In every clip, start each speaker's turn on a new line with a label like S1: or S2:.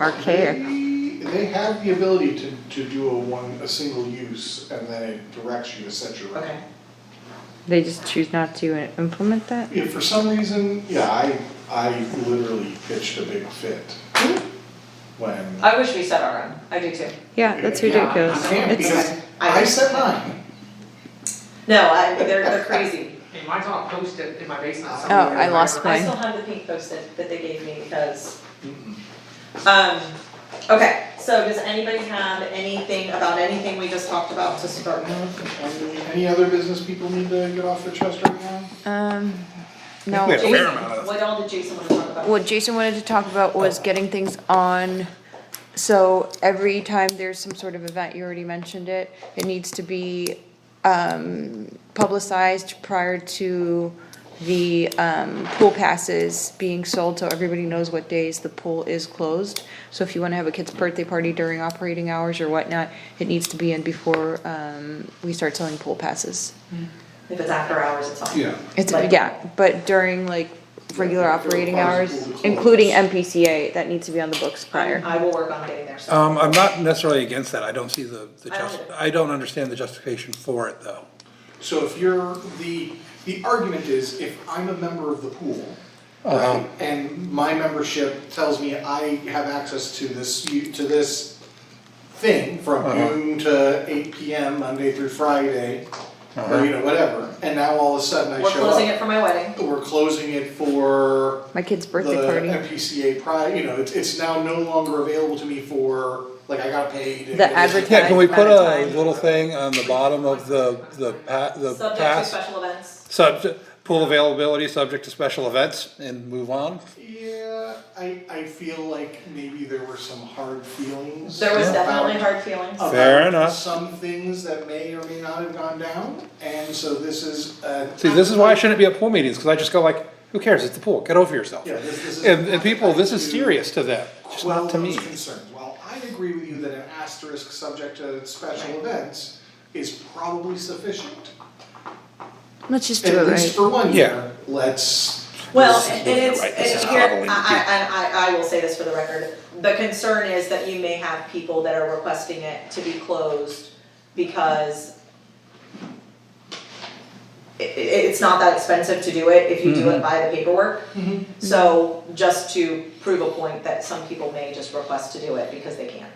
S1: Archaic.
S2: They- They have the ability to, to do a one, a single use, and then it directs you to set your rate.
S3: Okay.
S1: They just choose not to implement that?
S2: If for some reason, yeah, I, I literally pitched a big fit when.
S3: I wish we set our own, I do too.
S1: Yeah, that's
S2: Yeah,
S1: ridiculous.
S2: I can't
S1: It's,
S2: because I set mine.
S3: No, I, they're, they're crazy.
S4: Hey, mine's on a post-it in my basement
S1: oh,
S4: somewhere.
S1: I lost
S3: I
S1: mine.
S3: still have the pink post-it that they gave me because,
S2: Mm-hmm.
S3: um, okay, so does anybody have anything about anything we just talked about to start with?
S2: Mm-hmm. Any other business people need to get off their chest right now?
S1: Um,
S5: I think
S1: no,
S5: we Fair
S3: Jason,
S5: amount of-
S3: what all did Jason wanna talk about?
S1: what Jason wanted to talk about was getting things on. So every time there's some sort of event, you already mentioned it, it needs to be, um, publicized prior to the, um, pool passes being sold, so everybody knows what days the pool is closed. So if you wanna have a kid's birthday party during operating hours or whatnot, it needs to be in before, um, we start selling pool passes.
S3: If it's after hours, it's on.
S1: It's,
S3: Like-
S1: yeah, but during like regular
S2: Yeah,
S1: operating
S2: during
S1: hours,
S2: possible
S1: including
S2: close.
S1: MPCA, that needs to be on the books prior.
S3: I will work on getting there, so.
S5: Um, I'm not necessarily against that, I don't see the, the
S3: I don't
S5: just,
S3: either.
S5: I don't understand the justification for it, though.
S2: So if you're, the, the argument is, if I'm a member of the pool,
S5: Um,
S2: right, Um, and my membership tells me I have access to this, u- to this thing from
S5: Uh-huh.
S2: noon to eight PM, Monday through Friday, or you know, whatever, and now all of a sudden I show
S3: We're
S2: up.
S3: closing it for my wedding.
S2: We're closing it for
S1: My kid's
S2: the
S1: birthday party,
S2: MPCA pri, you know, it's, it's now no longer available to me for, like, I gotta pay to.
S1: The advertising-
S5: Yeah, can we put a
S1: Amount of time.
S5: little thing on the bottom of the, the pa, the
S3: Subject to
S5: pass?
S3: special events.
S5: Subject, pool availability, subject to special events, and move on?
S2: Yeah, I, I feel like maybe there were some hard feelings.
S3: There was
S2: about-
S3: definitely hard feelings.
S2: about
S5: Fair enough.
S2: Some things that may or may not have gone down, and so this is, uh.
S5: See, this is why I shouldn't be at pool meetings, cause I just go like, who cares, it's the pool, get over yourself.
S2: Yeah, this, this is.
S5: And, and people, this is
S2: to
S5: serious to them, just
S2: Quell
S5: not to me.
S2: those concerns, while I agree with you that an asterisk subject to special events is probably sufficient.
S1: let's just do it
S2: At least
S1: right.
S2: for one
S5: Yeah.
S2: year, let's.
S3: Well,
S2: let's-
S3: and it's,
S5: right, this
S3: it's
S5: is
S3: here, I,
S5: probably-
S3: I, I, I will say this for the record, the concern is that you may have people that are requesting it to be closed because i- i- it's not that expensive to do it if you do
S5: Mm-hmm.
S3: it by the paperwork.
S2: Mhm.
S3: So just to prove a point that some people may just request to do it because they can.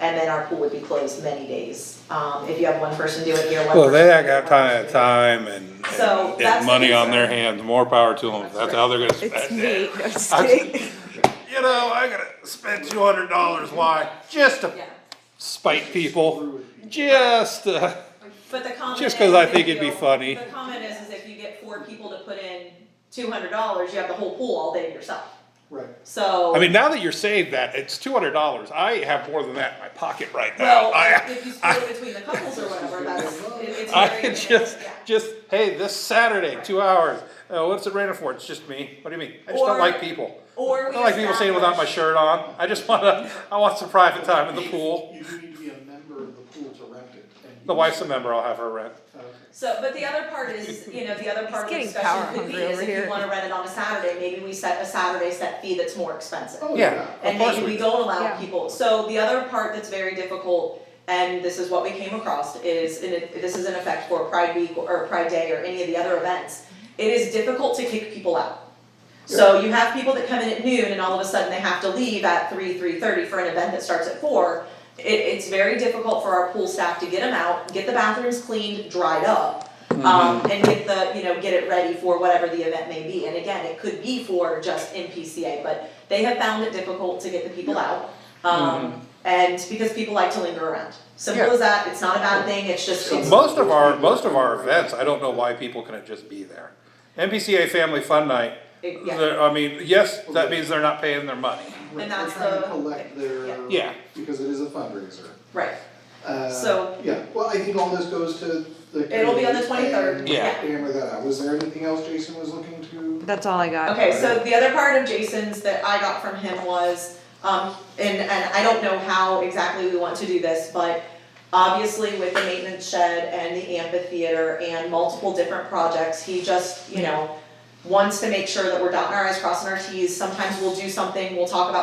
S3: And then our pool would be closed many days, um, if you have one person do it here, one person.
S5: Well, they
S3: do it,
S5: got
S3: one
S5: time,
S3: person do it.
S5: time and,
S3: So,
S5: and-
S3: that's
S5: and
S3: the
S5: money on their
S3: concern.
S5: hands, more power to them, that's how they're gonna spend it.
S1: It's me, I'm just
S5: I'm-
S1: kidding.
S5: You know, I gotta spend two hundred dollars, why? Just to
S3: Yeah,
S5: spite people, just, uh,
S3: But the comment
S5: Just
S3: is
S5: 'cause I
S3: if
S5: think it'd be
S3: you-
S5: funny.
S3: The comment is, is if you get four people to put in two hundred dollars, you have the whole pool all day to yourself.
S2: Right.
S3: So.
S5: I mean, now that you're saying that, it's two hundred dollars, I have more than that in my pocket right now.
S3: Well,
S5: I,
S3: if you split it between the couples or whatever, that's, it- it's very.
S5: I just, just, hey, this Saturday, two hours, uh, what's it raining for, it's just me, what do you mean? I just
S3: Or-
S5: don't like people.
S3: Or
S5: I
S3: we
S5: don't like people staying without my
S3: establish-
S5: shirt on, I just wanna, I want some private time in the pool,
S2: You do need to be a member of the pool to rent it. and-
S5: the wife's a member, I'll have her rent.
S2: Okay.
S3: So, but the other part is, you know, the other part of the
S1: getting
S3: discussion
S1: power
S3: could be
S1: hungry
S3: is
S1: over
S3: if you
S1: here.
S3: wanna rent it on a Saturday, maybe we set a Saturday set fee that's more expensive.
S2: Oh,
S5: Yeah.
S2: yeah.
S3: and
S5: course
S3: maybe
S5: we
S3: we
S5: do.
S3: don't allow
S1: Yeah.
S3: people, so the other part that's very difficult, and this is what we came across, is, and it, this is in effect for Pride Week or Pride Day or any of the other events, it is difficult to kick people out. So you have people that come in at noon and all of a sudden they have to leave at three, three thirty for an event that starts at four. It, it's very difficult for our pool staff to get them out, get the bathrooms cleaned, dried up, um, and get the, you know, get it ready for whatever the event may be. And again, it could be for just MPCA, but they have found it difficult to get the people out. Um, and because people like to linger around. Simple
S5: Yeah.
S3: as that, it's not a bad thing, it's just, it's,
S5: Most of our, most of our events, I don't know why people couldn't just be there. NPCA Family Fun Night,
S3: it- yeah,
S5: they're- I mean, yes, that means they're not paying their money.
S2: We're-
S3: And that's
S2: We're trying
S3: the-
S2: to collect their.
S5: Yeah.
S2: Because it is a fundraiser.
S3: right.
S2: Uh,
S3: So-
S2: Yeah, well, I think all this goes to the.
S3: It'll be on the
S2: committee
S3: 23rd,
S2: and
S5: yeah.
S2: Hammer that out. Was there anything else Jason was looking to?
S1: That's all I got.
S3: Okay, so the other part of Jason's that I got from him was, um, and, and I don't know how exactly we want to do this, but obviously with the maintenance shed and the amphitheater and multiple different projects, he just, you know, wants to make sure that we're dotting our i's, crossing our t's, sometimes we'll do something, we'll talk about